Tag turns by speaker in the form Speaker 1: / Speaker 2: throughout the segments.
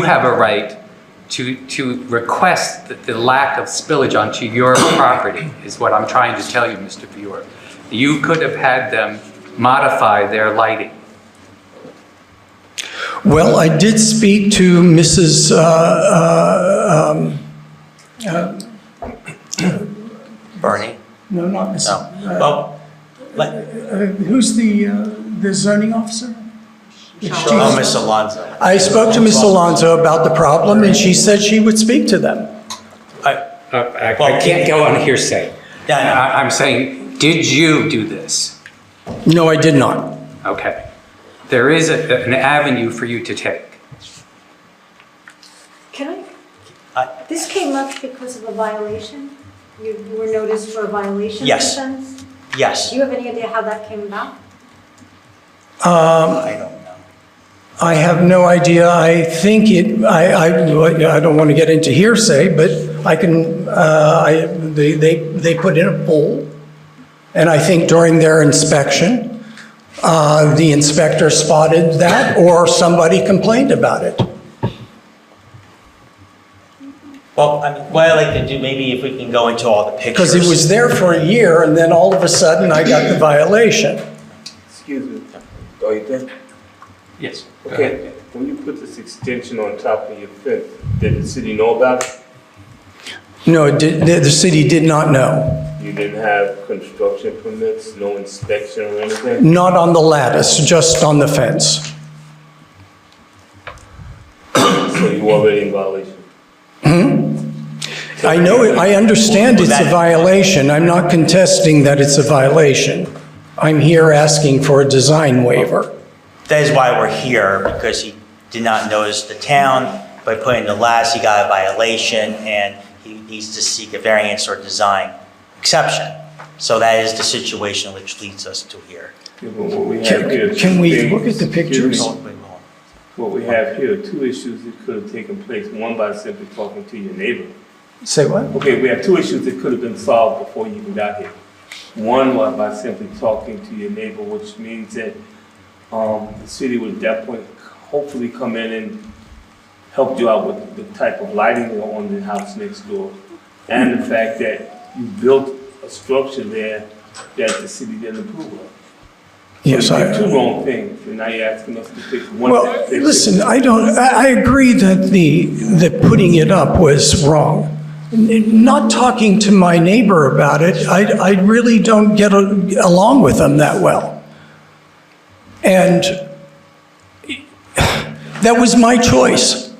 Speaker 1: you have a right to, to request that the lack of spillage onto your property, is what I'm trying to tell you, Mr. Viewer. You could have had them modify their lighting.
Speaker 2: Well, I did speak to Mrs., uh, uh, um,
Speaker 3: Bernie?
Speaker 2: no, not
Speaker 3: No.
Speaker 2: Mrs.,
Speaker 3: Well, let,
Speaker 2: who's the, uh, the zoning officer?
Speaker 3: oh, Miss Alonso.
Speaker 2: I spoke to Miss Alonso about the problem, and she said she would speak to them.
Speaker 3: I-
Speaker 1: Uh, I I
Speaker 3: Well-
Speaker 1: can't go on hearsay.
Speaker 3: Yeah, I know.
Speaker 1: I- I'm saying, did you do this?
Speaker 2: No, I did not.
Speaker 1: Okay. There is a- an avenue for you to take.
Speaker 4: Can
Speaker 3: I-
Speaker 4: I, this came up because of a violation? You were noticed for a violation of
Speaker 3: Yes.
Speaker 4: fence?
Speaker 3: Yes,
Speaker 4: Do you have any idea how that came about?
Speaker 3: I don't know.
Speaker 2: I have no idea. I think it, I, I, I don't want to get into hearsay, but I can, uh, I, they, they, they put in a poll. And I think during their inspection, uh, the inspector spotted that or somebody complained about it.
Speaker 3: Well, I mean, what I like to do, maybe if we can go into all the pictures.
Speaker 2: Because it was there for a year and then all of a sudden I got the violation.
Speaker 5: Excuse me. Are you there?
Speaker 1: Yes.
Speaker 5: Okay, when you put this extension on top of your fence, did the city know about it?
Speaker 2: No, it did- the, the city did not know.
Speaker 5: You didn't have construction permits, no inspection or anything?
Speaker 2: Not on the lattice, just on the fence.
Speaker 5: So you already in violation?
Speaker 2: I know, it- I understand it's a
Speaker 3: That-
Speaker 2: violation. I'm not contesting that it's a violation. I'm here asking for a design waiver.
Speaker 3: That is why we're here, because he did not notice the town. By putting the last, he got a violation, and he needs to seek a variance or design exception. So that is the situation which leads us to here.
Speaker 5: Yeah, but what we
Speaker 2: Can-
Speaker 5: have here are
Speaker 2: can
Speaker 5: two
Speaker 2: we
Speaker 5: things-
Speaker 2: look at the
Speaker 5: excuse
Speaker 2: pictures?
Speaker 5: me.
Speaker 3: Hold on, wait, hold on.
Speaker 5: What we have here are two issues that could have taken place, one by simply talking to your neighbor.
Speaker 2: Say what?
Speaker 5: Okay, we have two issues that could have been solved before you even got here. One was by simply talking to your neighbor, which means that, um, the city would at that point hopefully come in and help you out with the type of lighting on the house next door. And the fact that you built a structure there that the city didn't approve of.
Speaker 2: Yes,
Speaker 5: You did two
Speaker 2: I,
Speaker 5: wrong things, and now you're asking us to pick one.
Speaker 2: well,
Speaker 5: fix it.
Speaker 2: listen, I don't, I, I agree that the, that putting it up was wrong. N- Not talking to my neighbor about it, I, I really don't get a- along with them that well. And that was my choice.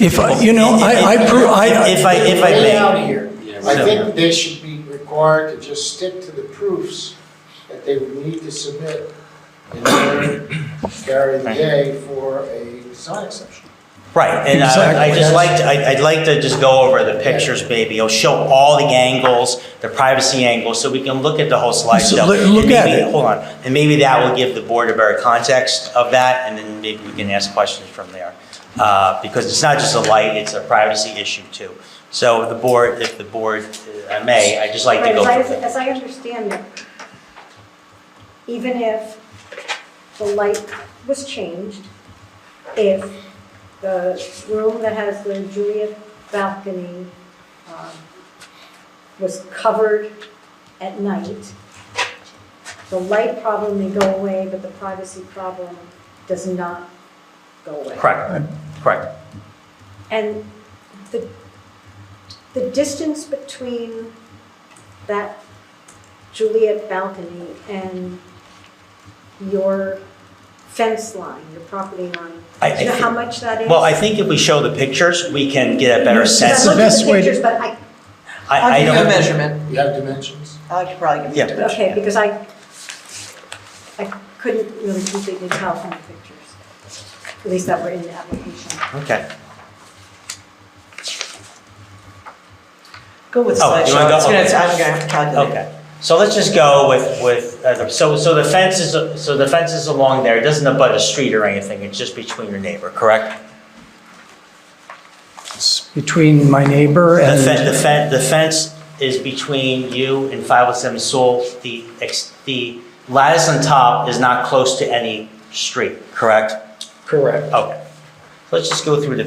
Speaker 2: If, I you know, I, I, pro- I.
Speaker 3: If I, if I
Speaker 6: Way
Speaker 3: may,
Speaker 6: out here. I think they should be required to just stick to the proofs that they would need to submit in order to carry the day for a design exception.
Speaker 3: right, and I, I
Speaker 2: Exactly.
Speaker 3: just like, to- I- I'd like to just go over the pictures, maybe. It'll show all the angles, the privacy angles, so we can look at the whole slideshow.
Speaker 2: look- look
Speaker 3: And maybe-
Speaker 2: at it.
Speaker 3: Hold on, and maybe that will give the board a better context of that, and then maybe we can ask questions from there. Uh, because it's not just a light, it's a privacy issue too. So the board, if the board, uh, I may, I'd just like to
Speaker 4: Right,
Speaker 3: go
Speaker 4: as I,
Speaker 3: over
Speaker 4: as
Speaker 3: that.
Speaker 4: I understand it, even if the light was changed, if the room that has the Juliet balcony um, was covered at night, the light problem may go away, but the privacy problem does not go away.
Speaker 3: Correct, correct.
Speaker 4: And the, the distance between that Juliet balcony and your fence line, your property line,
Speaker 3: I- I
Speaker 4: do you know how
Speaker 3: think-
Speaker 4: much that is?
Speaker 3: Well, I think if we show the pictures, we can get a better sense.
Speaker 2: the
Speaker 3: I,
Speaker 4: I looked at
Speaker 2: best way to-
Speaker 4: pictures, but I,
Speaker 3: I
Speaker 7: I'll give you a
Speaker 3: don't,
Speaker 7: measurement.
Speaker 6: You have dimensions?
Speaker 7: I could probably give you a
Speaker 3: Yeah.
Speaker 7: measurement.
Speaker 4: okay, because I, I couldn't really completely tell from the pictures, at least that were in the application.
Speaker 3: okay.
Speaker 7: Go with
Speaker 3: Oh, you wanna
Speaker 7: slideshow.
Speaker 3: go?
Speaker 7: It's gonna,
Speaker 3: Okay.
Speaker 7: I'm gonna have to calculate.
Speaker 3: Okay, so let's just go with, with, uh, the- so, so the fence is, so the fence is along there, it doesn't abut a street or anything, it's just between your neighbor, correct?
Speaker 2: Between my neighbor
Speaker 3: The
Speaker 2: and.
Speaker 3: fence, the fence, the fence is between you and 507 Sewell, the, ex- the lattice on top is not close to any street, correct?
Speaker 2: Correct.
Speaker 3: Okay, Let's just go through the